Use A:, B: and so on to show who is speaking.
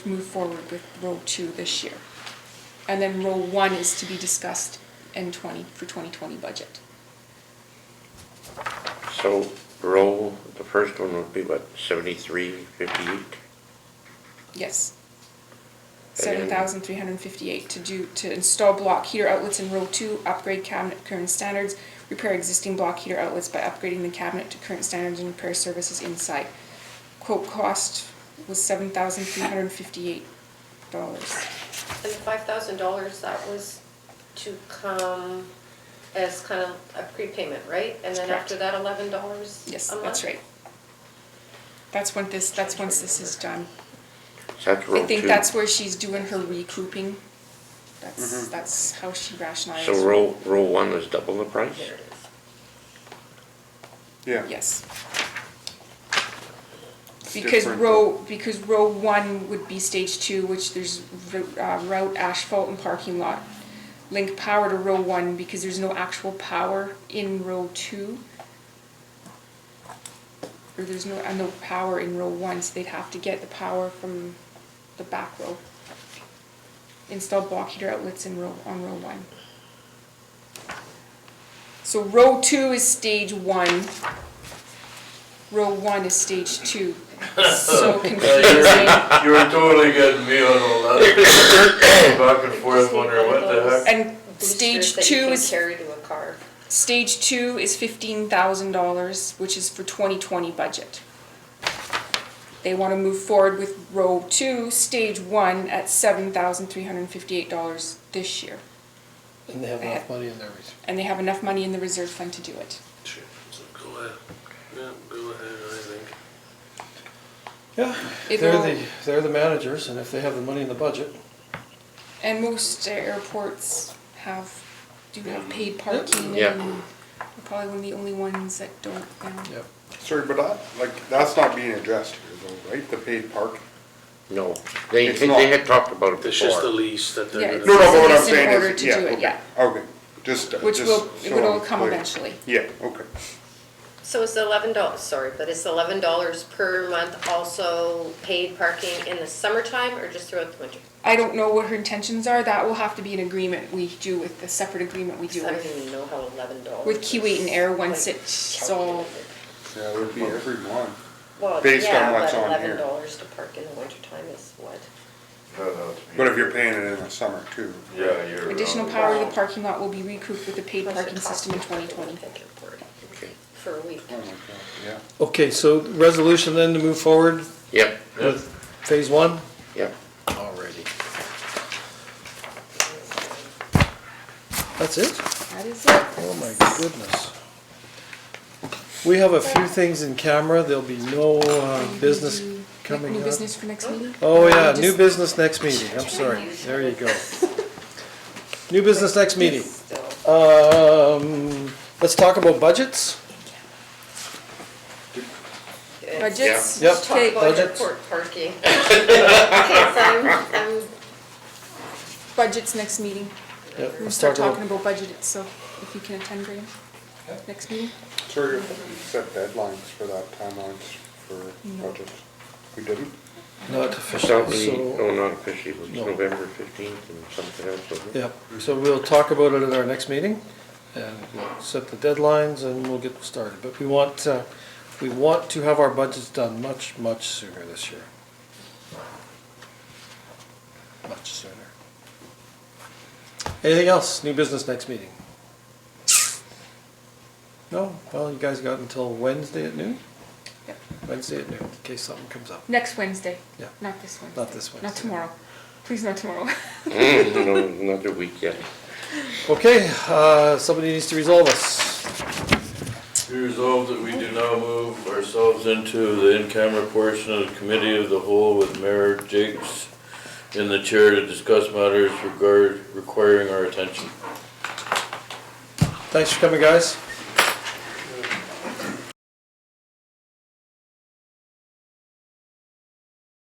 A: move forward with row two this year. And then row one is to be discussed in twenty, for twenty twenty budget.
B: So roll, the first one would be what, seventy-three fifty-eight?
A: Yes. Seven
B: And-
A: thousand three hundred and fifty-eight to do, to install block heater outlets in row two, upgrade cabinet current standards, repair existing block heater outlets by upgrading the cabinet to current standards and repair services inside. Quote cost was seven thousand three hundred and fifty-eight dollars.
C: And the five thousand dollars, that was to come as kind of a prepayment, right? And then
A: Correct.
C: after that, eleven dollars a month?
A: Yes, that's right. That's when this, that's once this is done.
B: Is that roll two?
A: I think that's where she's doing her recouping. That's,
D: Mm-hmm.
A: that's how she rationalized.
B: So roll, roll one is double the price?
C: There it is.
D: Yeah.
A: Yes.
D: It's
A: Because
D: different,
A: row, because row one would be stage two, which there's ro- uh, route, asphalt and parking lot. Link power to row one because there's no actual power in row two. Or there's no, uh, no power in row one, so they'd have to get the power from the back row. Install block heater outlets in row, on row one. So row two is stage one. Row one is stage two. So confusing.
E: You were totally getting me on all that. Back and forth wondering what the heck.
A: And
C: Boosters
A: stage
C: that you
A: two
C: can
A: is,
C: Carry to a car.
A: stage two is fifteen thousand dollars, which is for twenty twenty budget. They wanna move forward with row two, stage one, at seven thousand three hundred and fifty-eight dollars this year.
F: And they have enough
A: Uh,
F: money in their reserve.
A: And they have enough money in the reserve fund to do it.
E: Sure, so Go ahead, yeah, go ahead, I think.
F: Yeah, they're
A: It'll-
F: the, they're the managers, and if they have the money in the budget,
A: And most airports have, do have
E: Mm-hmm.
A: paid parking
B: Yeah.
A: and we're probably one of the only ones that don't now.
F: yep.
D: Sorry, but that, like, that's not being addressed here though, right? The paid parking.
B: No, they,
D: It's
B: they
D: not.
B: had talked about it
E: It's just the
B: before.
E: lease that
A: Yeah,
E: they're
A: it's-
D: No, no,
E: gonna,
D: but what I'm
A: It's in
D: saying
A: order
D: is,
A: to
D: yeah,
A: do it,
D: okay,
A: yeah.
D: okay, just, uh, just.
A: Which will,
D: so
A: it will
D: I'm
A: come
D: clear.
A: eventually.
D: Yeah, okay.
C: So it's eleven dollars, sorry, but it's eleven dollars per month also paid parking in the summertime or just throughout the winter?
A: I don't know what her intentions are, that will have to be an agreement we do with, the separate agreement we do
C: I don't
A: with,
C: even know how eleven dollars.
A: with Kiwi and Air once it's all,
D: Yeah, it would be every month.
C: Well,
D: based on
C: yeah,
D: what's
C: but
D: on here.
C: eleven dollars to park in the wintertime is what?
D: But if you're paying it in the summer too.
E: Yeah, you're.
A: additional power to the parking lot will be recouped with the paid
C: Plus it
A: parking
C: costs
A: system in
C: me to
A: twenty
C: put
A: twenty.
C: the picture board
B: Okay.
C: For a week.
D: Oh my God, yeah.
F: Okay, so resolution then to move forward
B: Yep,
F: with phase one?
B: yep.
F: Alrighty. That's it?
A: That is it.
F: Oh my goodness. We have a few things in camera, there'll be no uh, business
A: New-
F: coming
A: New
F: up.
A: business for next meeting?
F: Oh, yeah,
A: Just-
F: new business next meeting, I'm sorry, there you go. New business next meeting.
C: Still.
F: Um, let's talk about budgets.
A: Budgets,
F: Yeah. Yep.
C: Let's talk
A: okay,
C: about
F: budgets.
C: airport parking. Because I'm, I'm,
A: budgets next meeting.
F: Yeah,
A: We're gonna
F: let's
A: start
F: talk
A: talking
F: about,
A: about budget, so if you can attend, Graham, next meeting?
D: Sorry, you set deadlines for that timelines for
A: No.
D: budgets. We didn't?
F: not
B: It's not
F: official,
B: the,
F: so,
B: oh, not officially, it was
F: No.
B: November fifteenth and something else, wasn't it?
F: yeah, so we'll talk about it at our next meeting. And we'll set the deadlines and we'll get started, but we want, uh, we want to have our budgets done much, much sooner this year. Much sooner. Anything else, new business next meeting? No, well, you guys got until Wednesday at noon?
A: Yep.
F: Wednesday at noon, in case something comes up.
A: Next Wednesday,
F: Yeah.
A: not this Wednesday.
F: Not this
A: Not
F: Wednesday.
A: tomorrow, please not tomorrow.
B: Mm, No, another week yet.
F: Okay, uh, somebody needs to resolve us.
E: Be resolved that we do now move ourselves into the in-camera portion of the committee of the whole with Mayor Jakes in the chair to discuss matters regard, requiring our attention.
F: Thanks for coming, guys.